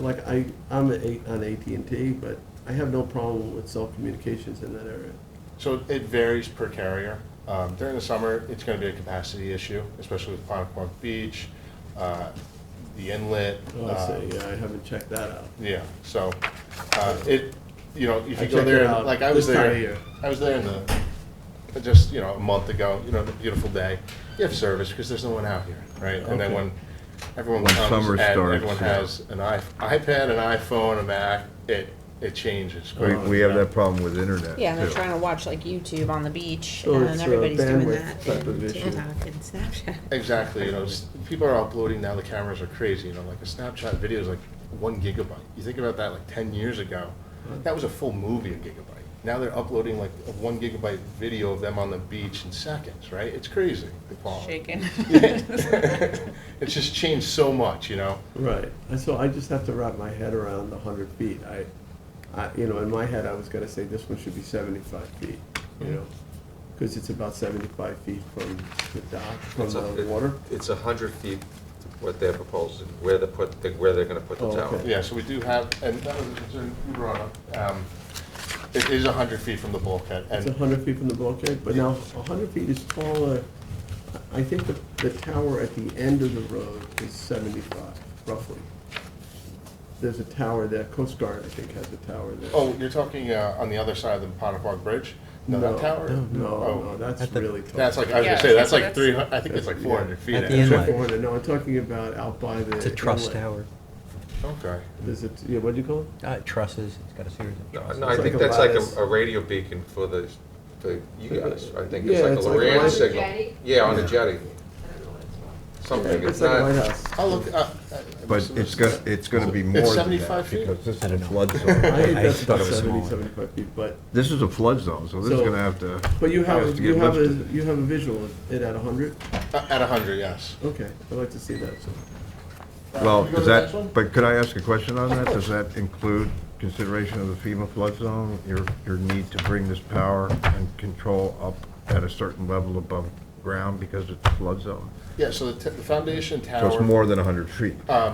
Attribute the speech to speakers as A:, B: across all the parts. A: Like, I, I'm a- on AT&T, but I have no problem with cell communications in that area.
B: So it varies per carrier. Um, During the summer, it's going to be a capacity issue, especially with Ponquunk Beach, uh, the inlet.
A: Oh, I
B: uh,
A: say, yeah, I haven't checked that out.
B: Yeah, so uh, it, you know, if
A: I
B: you
A: checked
B: go
A: it
B: there,
A: out
B: like I was
A: this time of
B: there,
A: year.
B: I was there in the, uh, just, you know, a month ago, you know, the beautiful day. You have service because there's no one out here, right? And then
A: Okay.
B: when everyone
C: When
B: comes
C: summer
B: and
C: starts,
B: everyone
C: yeah.
B: has an i- iPad, an iPhone, a Mac, it, it changes.
C: We,
A: Oh,
C: we have
A: yeah.
C: that problem with internet,
D: Yeah, they're
C: too.
D: trying to watch like YouTube on the beach,
A: So
D: and
A: it's a
D: everybody's doing
A: bandwidth
D: that,
A: type of
D: and
A: issue.
D: TikTok and Snapchat.
B: Exactly, you know, s- people are uploading now, the cameras are crazy, you know, like a Snapchat video is like one gigabyte. You think about that, like ten years ago, that was a full movie, a gigabyte. Now they're uploading like a one gigabyte video of them on the beach in seconds, right? It's crazy, the quality.
E: Shaken.
B: It's just changed so much, you know?
A: Right, and so I just have to wrap my head around the hundred feet. I, I, you know, in my head, I was gonna say this one should be seventy-five feet, you know? Because it's about seventy-five feet from the dock, from
F: It's a-
A: the
F: it-
A: water.
F: It's a hundred feet, what they're proposing, where they put, where they're gonna put the
A: Oh,
F: tower.
A: okay.
B: Yeah, so we do have, and that was a concern you brought up. Um, It is a hundred feet from the bulkhead,
A: It's a
B: and
A: hundred feet from the bulkhead, but now a hundred feet is taller. I think the, the tower at the end of the road is seventy-five, roughly. There's a tower there, Coast Guard, I think, has a tower there.
B: Oh, you're talking uh, on the other side of the Pontefract Bridge? No, that tower?
A: No,
B: Oh,
A: no, no, that's
G: At the-
A: really tall.
B: That's like, I was
E: Yeah,
B: gonna say, that's
E: so
B: like
E: that's-
B: three hundred. I think it's like
A: Yeah.
B: four hundred feet.
G: At the
B: actually.
G: inlet.
A: Four hundred, no, I'm talking about out by the.
G: It's a truss
A: inlet.
G: tower.
B: Okay.
A: Is it, yeah, what do you call it?
G: Uh, trusses. It's got a series of
F: No,
G: trusses.
F: No, I
A: It's like
F: think
A: a
F: that's like
A: lattice.
F: a, a radio beacon for the, for you guys, I think
A: Yeah,
F: it's like
A: it's
F: a
A: like a
F: Loran
A: light-
F: signal.
H: Jetty?
F: Yeah, on the jetty. Something, it's
A: It's like a
F: not,
A: lighthouse.
B: I'll look, uh, I- I
C: But
B: must have
C: it's
B: missed
C: gonna,
B: that.
C: it's gonna be
B: It's
C: more than
B: 75
C: that,
B: feet?
C: because this is
G: I
C: a
G: don't know.
C: flood
A: I
C: zone.
A: think
G: I
A: that's
G: thought
A: about
G: it was
A: 70,
G: smaller.
A: 75 feet, but,
C: This is a flood zone, so this is
A: So-
C: gonna have to.
A: but you
C: has
A: have,
C: to
A: you
C: get
A: have a,
C: lifted.
A: you have a visual of it at hundred?
B: Uh, At a hundred, yes.
A: Okay, I'd like to see that, so.
B: Uh,
C: Well,
B: can we go
C: does
B: to the next
C: that,
B: one?
C: but could I ask a question on that? Does that include consideration of the FEMA flood zone? Your, your need to bring this power and control up at a certain level above ground because it's a flood zone?
B: Yeah, so the t- the foundation
C: So it's
B: tower,
C: more than hundred feet,
G: Uh,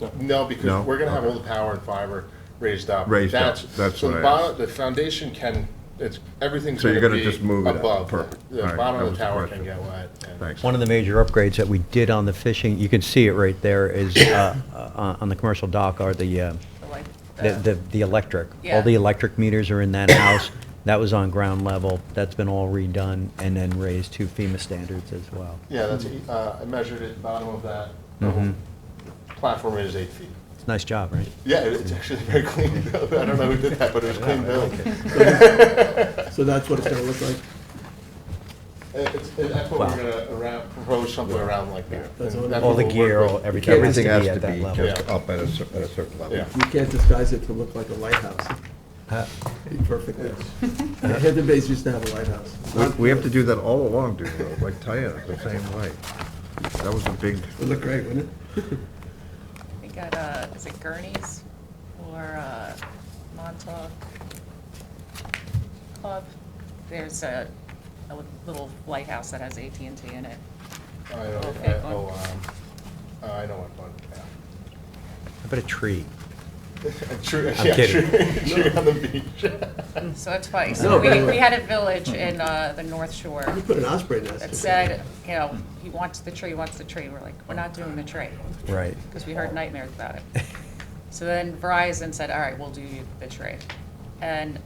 B: no,
C: No?
B: because we're gonna have all the power and fiber raised up.
C: Raised up, that's
B: so
C: what
B: the
C: I
B: bottom-
C: asked.
B: The foundation can, it's, everything's
C: So
B: gonna
C: you're
B: be
C: gonna just move it up,
B: above.
C: perfect.
B: The
C: All right,
B: bottom of
C: that
B: the
C: was the
B: tower can
C: question.
B: get wet. and-
C: thanks.
G: One of the major upgrades that we did on the fishing, you can see it right there, is uh, uh, on the commercial dock are the, uh,
E: Like,
G: the,
E: uh,
G: the- the electric.
E: Yeah.
G: All the electric meters are in that house. That was on ground level. That's been all redone and then raised to FEMA standards as well.
B: Yeah, that's, uh, I measured it, bottom of that
C: Mm-hmm.
B: um, platform is eight feet.
G: It's a nice job, right?
B: Yeah, it- it's actually very clean built. I don't know who did that, but it was clean built.
A: So that's what it's gonna look like?
B: It's, it- that's what
G: Wow.
B: we're gonna around, propose something around like that.
A: That's
B: And
A: all-
B: that's
G: All
B: what
G: the
B: we'll
G: gear,
B: work
G: all-
B: with.
G: everything has to
C: Everything has
G: be
C: to
G: at that
C: be
G: level.
C: kept up at a cer- at a certain level.
B: Yeah.
A: You can't disguise it to look like a lighthouse.
C: Uh,
G: Huh?
A: Be perfect. Hidden Bay's used to have a lighthouse.
C: We- Uh-huh. We have to do that all along, dude, though, like Tiana, the same way. That was a big,
A: Would look great, wouldn't it?
E: We got, uh, is it Gurney's or, uh, Montauk Club? There's a, a little lighthouse that has at and T in it.
B: I know,
E: Okay,
B: I-
E: one.
B: oh, um, I know what one, yeah.
G: How about a tree?
B: True,
G: I'm
B: yeah, true,
G: kidding.
B: true on the beach.
E: So that's why,
A: No,
E: so we,
A: but-
E: we had a village in, uh, the North Shore
A: You put an osprey nest.
E: that said, you know, he wants the tree, wants the tree. We're like, we're not doing the tree,
G: Right.
E: because we heard nightmares about it. So then Verizon said, all right, we'll do you the tree. And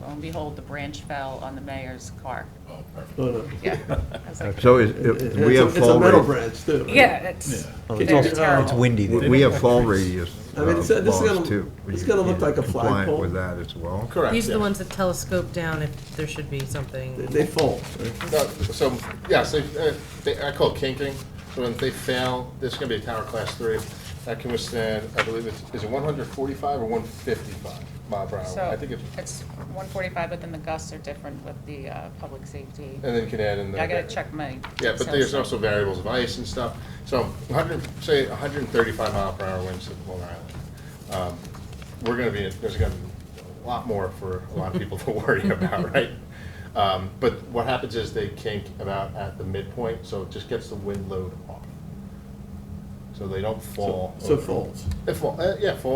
E: lo and behold, the branch fell on the mayor's car.
A: Oh, No, no.
E: Yeah. I was like,
C: so is-
A: It's
C: if
A: a-
C: we have
A: It's a
C: fall
A: metal
C: rate.
A: branch, too. right?
E: Yeah, it's,
G: Oh,
E: it's
G: It's also-
E: terrible.
G: it's windy there.
C: we- We have fall radius
A: I mean, it's-
C: uh,
A: this is
C: laws
A: gonna-
C: too.
A: it's
C: You-
A: gonna look
C: you're
A: like a flagpole.
C: Compliant with that as well.
B: Correct,
I: These are
B: yes.
I: the ones that telescope down if there should be
A: They-
I: something.
A: They fall. right?
B: No, So, yes, they, uh, they, I call it kinking, so when they fail, this is gonna be a tower class three. That can withstand, I believe it's, is it one hundred forty-five or one fifty-five mile per hour? I
E: So
B: think it's,
E: it's 145, but then the gusts are different with the uh, public safety.
B: and then you can add in the.
E: I gotta check my.
B: Yeah, but there's
E: sales.
B: also variables of ice and stuff. So 100, say 135 mile per hour winds at Long Island. Um, We're gonna be, there's gonna be a lot more for a lot of people to worry about, right? Um, But what happens is they kink about at the midpoint, so it just gets the wind load off. so they don't fall.
A: So
B: over.
A: folds.
B: It fall, uh, yeah, fall